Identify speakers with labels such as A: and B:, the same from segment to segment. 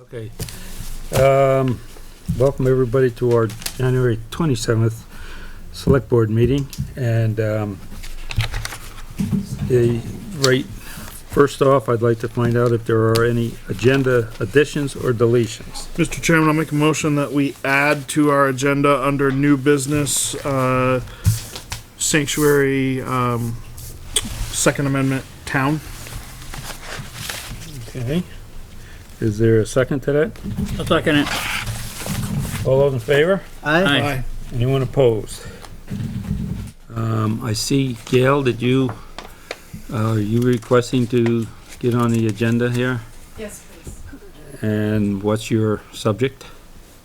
A: Okay. Um, welcome everybody to our January twenty-seventh Select Board meeting and, um, the, right, first off, I'd like to find out if there are any agenda additions or deletions.
B: Mr. Chairman, I'll make a motion that we add to our agenda under new business, uh, sanctuary, um, Second Amendment town.
A: Okay. Is there a second to that?
C: I'll second it.
A: All those in favor?
C: Aye.
A: Anyone opposed? Um, I see, Gail, did you, uh, are you requesting to get on the agenda here?
D: Yes, please.
A: And what's your subject?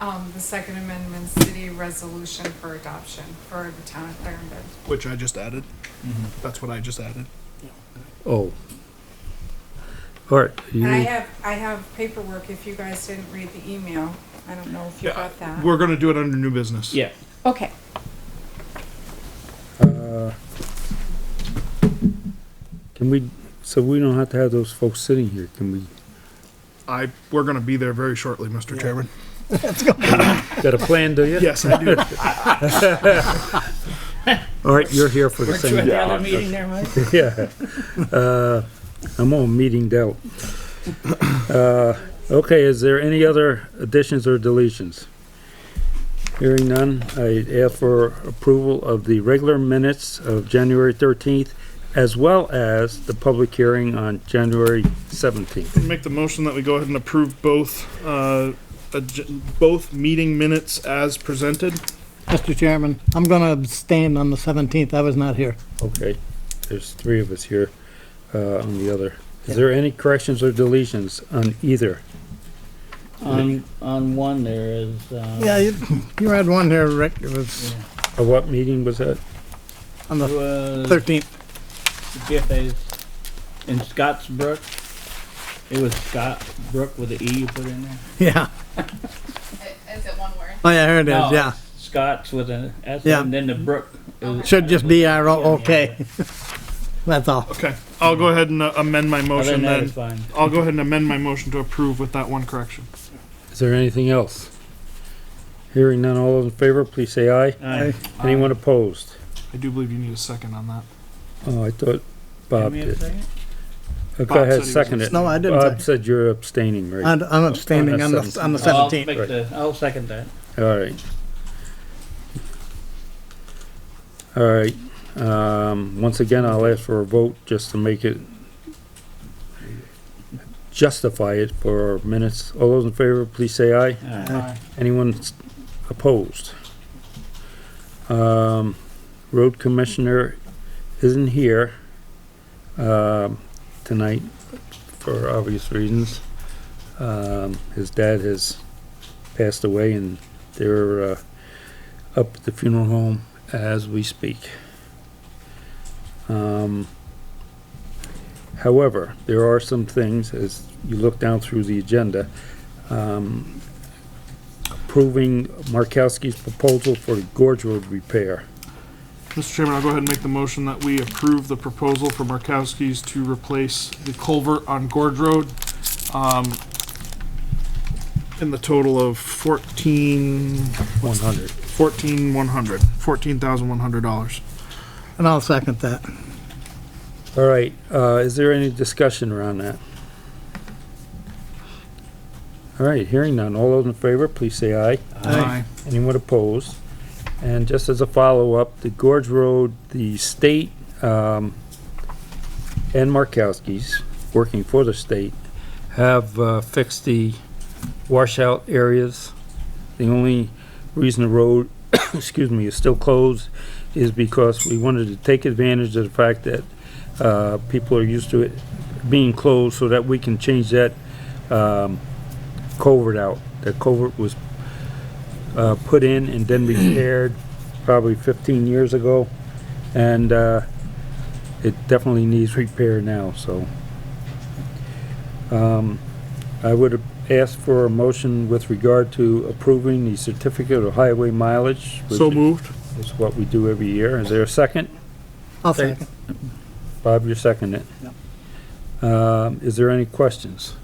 D: Um, the Second Amendment City Resolution for Adoption for the town of Clarendon.
B: Which I just added.
C: Mm-hmm.
B: That's what I just added.
A: Oh. All right, you,
D: And I have, I have paperwork if you guys didn't read the email. I don't know if you got that.
B: We're gonna do it under new business.
C: Yeah.
D: Okay.
A: uh, can we, so we don't have to have those folks sitting here, can we
B: I, we're gonna be there very shortly, Mr. Chairman.
A: Got a plan, do you?
B: Yes, I do.
A: All right, you're here for the
C: Weren't you at
A: same,
C: the other meeting there, Mike?
A: yeah. Uh, I'm on meeting doubt. Uh, okay, is there any other additions or deletions? Hearing none, I ask for approval of the regular minutes of January thirteenth, as well as the public hearing on January seventeenth.
B: Make the motion that we go ahead and approve both, uh, ag- both meeting minutes as presented.
E: Mr. Chairman, I'm going to abstain on the 17th. I was not here.
A: Okay, there's three of us here, uh, on the other. Is there any corrections or deletions on either?
C: On, on one there is, uh.
E: Yeah, you, you had one here, Rick. It was
A: Uh, what meeting was that?
E: on the
C: Was
E: 13th.
C: GFA's in Scottsbrook. It was Scottsbrook with the E you put in there?
E: Yeah.
D: Is it one word?
E: Oh, yeah, here it
C: No,
E: is. Yeah.
C: Scotts with an S
E: Yeah.
C: and then the Brook. is-
E: Should just be our okay. That's all.
B: Okay, I'll go ahead and uh, amend my
C: Other than
B: motion
C: that,
B: then.
C: it's fine.
B: I'll go ahead and amend my motion to approve with that one correction.
A: Is there anything else? Hearing none, all those in favor, please say aye.
C: Aye.
A: Anyone opposed?
B: I do believe you need a second on that.
A: Oh, I thought
C: Give
A: Bob
C: me a
A: did.
C: second.
A: Uh,
B: Bob
A: Go
B: said he
A: ahead,
B: was
A: second it.
E: No, I didn't
A: Bob
E: say.
A: said you're abstaining, right?
E: I'm I'm abstaining on the, on the
C: I'll
E: 17th.
C: make the, I'll second that.
A: All right. All right, um, once again, I'll ask for a vote just to make it justify it for our minutes. All those in favor, please say aye.
C: Aye.
A: Anyone s- opposed? Um, road commissioner isn't here, um, tonight for obvious reasons. Um, his dad has passed away and they're, uh, up at the funeral home as we speak. Um, however, there are some things, as you look down through the agenda, um, approving Markowski's proposal for gorge road repair.
B: Mr. Chairman, I'll go ahead and make the motion that we approve the proposal for Markowski's to replace the culvert on Gorge Road, um, in the total of fourteen,
A: One hundred.
B: fourteen one hundred, fourteen thousand one hundred dollars.
E: And I'll second that.
A: All right, uh, is there any discussion around that? All right, hearing none. All those in favor, please say aye.
B: Aye.
A: Anyone opposed? And just as a follow-up, the Gorge Road, the state, um, and Markowski's, working for the state, have uh, fixed the washout areas. The only reason the road, excuse me, is still closed is because we wanted to take advantage of the fact that, uh, people are used to it being closed so that we can change that, um, culvert out. That culvert was uh, put in and then repaired probably 15 years ago. And uh, it definitely needs repair now, so. Um, I would ask for a motion with regard to approving the certificate of highway mileage. which
B: So moved.
A: Is what we do every year. Is there a second?
E: I'll second.
A: Bob, you're seconding it. Um, is there any questions?